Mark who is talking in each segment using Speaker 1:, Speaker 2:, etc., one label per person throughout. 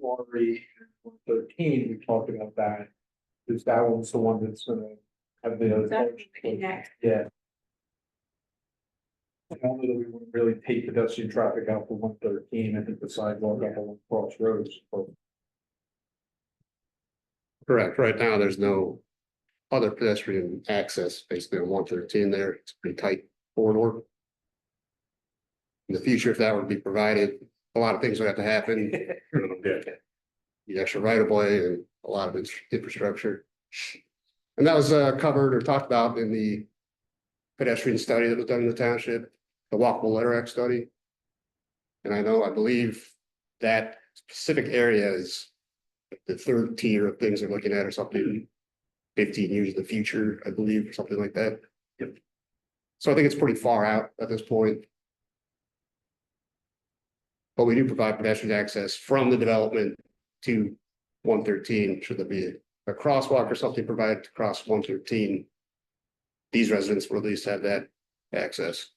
Speaker 1: Lori and one thirteen, we talked about that. Because that one's the one that's gonna have the.
Speaker 2: That would be next.
Speaker 1: Yeah. I don't know that we would really take pedestrian traffic out for one thirteen, I think the sidewalk up on crossroads, but
Speaker 3: Correct, right now, there's no other pedestrian access basically on one thirteen there, it's a pretty tight corridor. In the future, if that were to be provided, a lot of things would have to happen. The extra right of way and a lot of its infrastructure. And that was uh covered or talked about in the pedestrian study that was done in the township, the walkable letter Act study. And I know, I believe that specific area is the third tier of things they're looking at or something. Fifteen years in the future, I believe, or something like that. Yep. So I think it's pretty far out at this point. But we do provide pedestrian access from the development to one thirteen, should there be a crosswalk or something provided to cross one thirteen. These residents will at least have that access.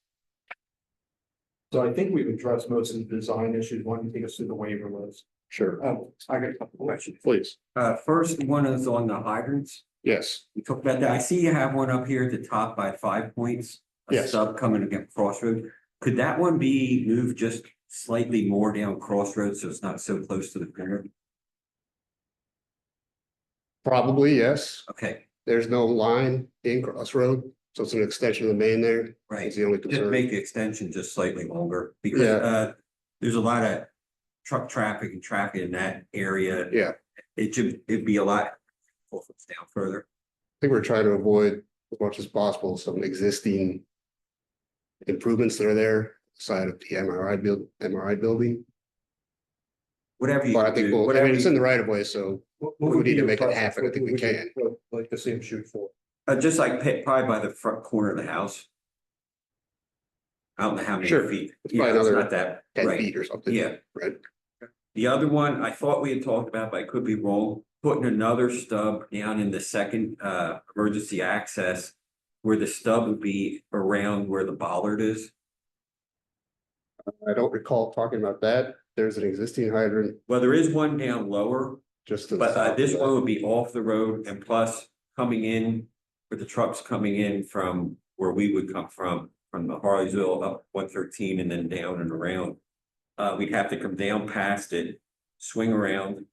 Speaker 1: so I think we've addressed most of the design issues, why don't you take us through the waiver list?
Speaker 3: Sure.
Speaker 1: Oh, I got a couple questions.
Speaker 3: Please,
Speaker 4: Uh, first one is on the hydrants.
Speaker 3: yes,
Speaker 4: We talked about that. I see you have one up here at the top by five points. A
Speaker 3: Yes.
Speaker 4: sub coming against Crossroad. Could that one be moved just slightly more down Crossroad so it's not so close to the corner?
Speaker 3: probably, yes.
Speaker 4: Okay,
Speaker 3: There's no line in Crossroad, so it's an extension of the main there.
Speaker 4: right.
Speaker 3: It's the only
Speaker 4: Just
Speaker 3: concern.
Speaker 4: make the extension just slightly longer because
Speaker 3: Yeah.
Speaker 4: uh, there's a lot of truck traffic and traffic in that area.
Speaker 3: Yeah.
Speaker 4: It should, it'd be a lot. if it's Down further.
Speaker 3: I think we're trying to avoid as much as possible some existing. Improvements that are there side of the MRI build, MRI building,
Speaker 4: Whatever you
Speaker 3: but I
Speaker 4: can
Speaker 3: think,
Speaker 4: do,
Speaker 3: well, I
Speaker 4: whatever
Speaker 3: mean, it's in
Speaker 4: you,
Speaker 3: the right of way, so
Speaker 1: What-
Speaker 3: We
Speaker 1: what would
Speaker 3: need
Speaker 1: be
Speaker 3: to
Speaker 1: your
Speaker 3: make it
Speaker 1: preference?
Speaker 3: happen. I
Speaker 1: What
Speaker 3: think we
Speaker 1: would you
Speaker 3: can.
Speaker 1: Like to see him shoot for.
Speaker 4: uh, just like pa- probably by the front corner of the house. I don't know how many
Speaker 3: Sure.
Speaker 4: feet.
Speaker 3: It's
Speaker 4: Yeah,
Speaker 3: probably
Speaker 4: it's
Speaker 3: another
Speaker 4: not that,
Speaker 3: ten
Speaker 4: right,
Speaker 3: feet or something.
Speaker 4: yeah.
Speaker 3: Right.
Speaker 4: The other one, I thought we had talked about, but I could be wrong, putting another stub down in the second uh emergency access. Where the stub would be around where the bollard is.
Speaker 3: I don't recall talking about that. There's an existing hydrant
Speaker 4: Well, there is one down lower,
Speaker 3: just. to the
Speaker 4: but uh,
Speaker 3: south.
Speaker 4: this one would be off the road and plus coming in. With the trucks coming in from where we would come from, from the Harleysville up one thirteen and then down and around. Uh, we'd have to come down past it, swing around,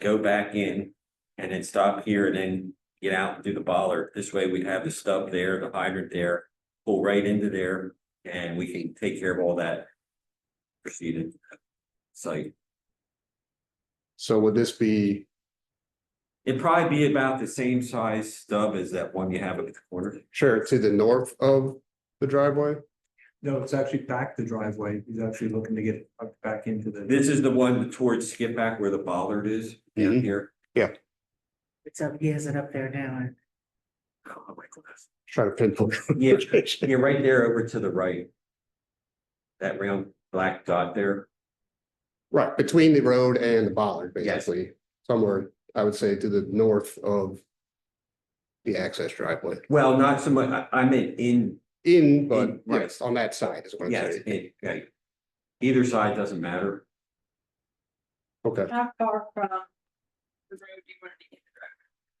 Speaker 4: go back in. And then stop here and then get out and do the bollard. This way we'd have the stub there, the hydrant there, pull right into there. And we can take care of all that. Proceeded. Site.
Speaker 3: So would this be,
Speaker 4: It'd probably be about the same size stub as that one you have at the corner.
Speaker 3: sure, to the north of the driveway?
Speaker 1: No, it's actually back the driveway. He's actually looking to get up back into the.
Speaker 4: This is the one towards skip back where the bollard is down
Speaker 3: Mhm.
Speaker 4: here.
Speaker 2: It's up, he has it up there now.
Speaker 4: Oh, my goodness.
Speaker 3: Try to pinpoint.
Speaker 4: Yeah, you're right there over to the right. That round black dot there.
Speaker 3: Right, between the road and the bollard,
Speaker 4: Yes.
Speaker 3: basically, somewhere, I would say to the north of. The access driveway,
Speaker 4: Well, not so much, I, I meant in,
Speaker 3: in, but
Speaker 4: In, right.
Speaker 3: yes, on that side is what I'm
Speaker 4: yes,
Speaker 3: saying,
Speaker 4: in, right. Either side doesn't matter.
Speaker 3: okay,
Speaker 2: How far from the road do you want to be?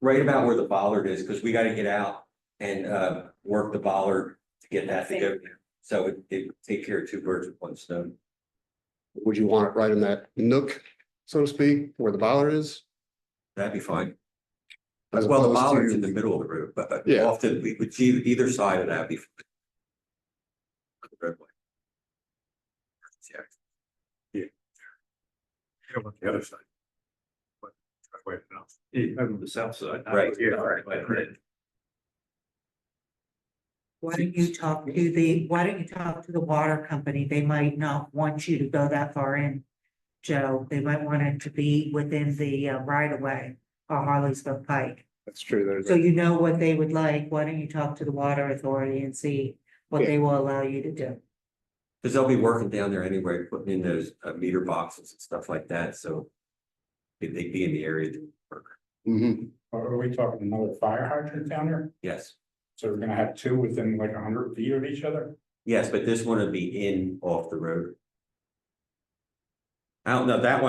Speaker 4: Right about where the bollard is, because we gotta get out and, uh, work the bollard to get that to go. So it, it would take care of two birds with one stone.
Speaker 3: would you want it right in that nook, so to speak, where the bollard is?
Speaker 4: That'd be fine.
Speaker 3: as
Speaker 4: Well, the
Speaker 3: opposed
Speaker 4: bollards in
Speaker 3: to-
Speaker 4: the middle of the road, but but
Speaker 3: Yeah.
Speaker 4: often we would see either side of that before.
Speaker 5: You know, on the other side. But, wait, no.
Speaker 1: Over the south side.
Speaker 4: Right, yeah,
Speaker 1: Right, right.
Speaker 4: right, right.
Speaker 6: Why don't you talk to the, why don't you talk to the water company? They might not want you to go that far in. Joe, they might want it to be within the uh, right of way or Harleysville Pike.
Speaker 3: That's true, there's,
Speaker 6: So
Speaker 3: a-
Speaker 6: you know what they would like. Why don't you talk to the water authority and see what they will allow you to do?
Speaker 4: Because they'll be working down there anyway, putting in those uh, meter boxes and stuff like that, so. If they'd be in the area, they'd work.
Speaker 3: Mhm.
Speaker 5: Are, are we talking another fire hydrant down there?
Speaker 4: yes,
Speaker 5: So we're gonna have two within like a hundred feet of each other?
Speaker 4: yes, but this one would be in off the road. I don't know, that one.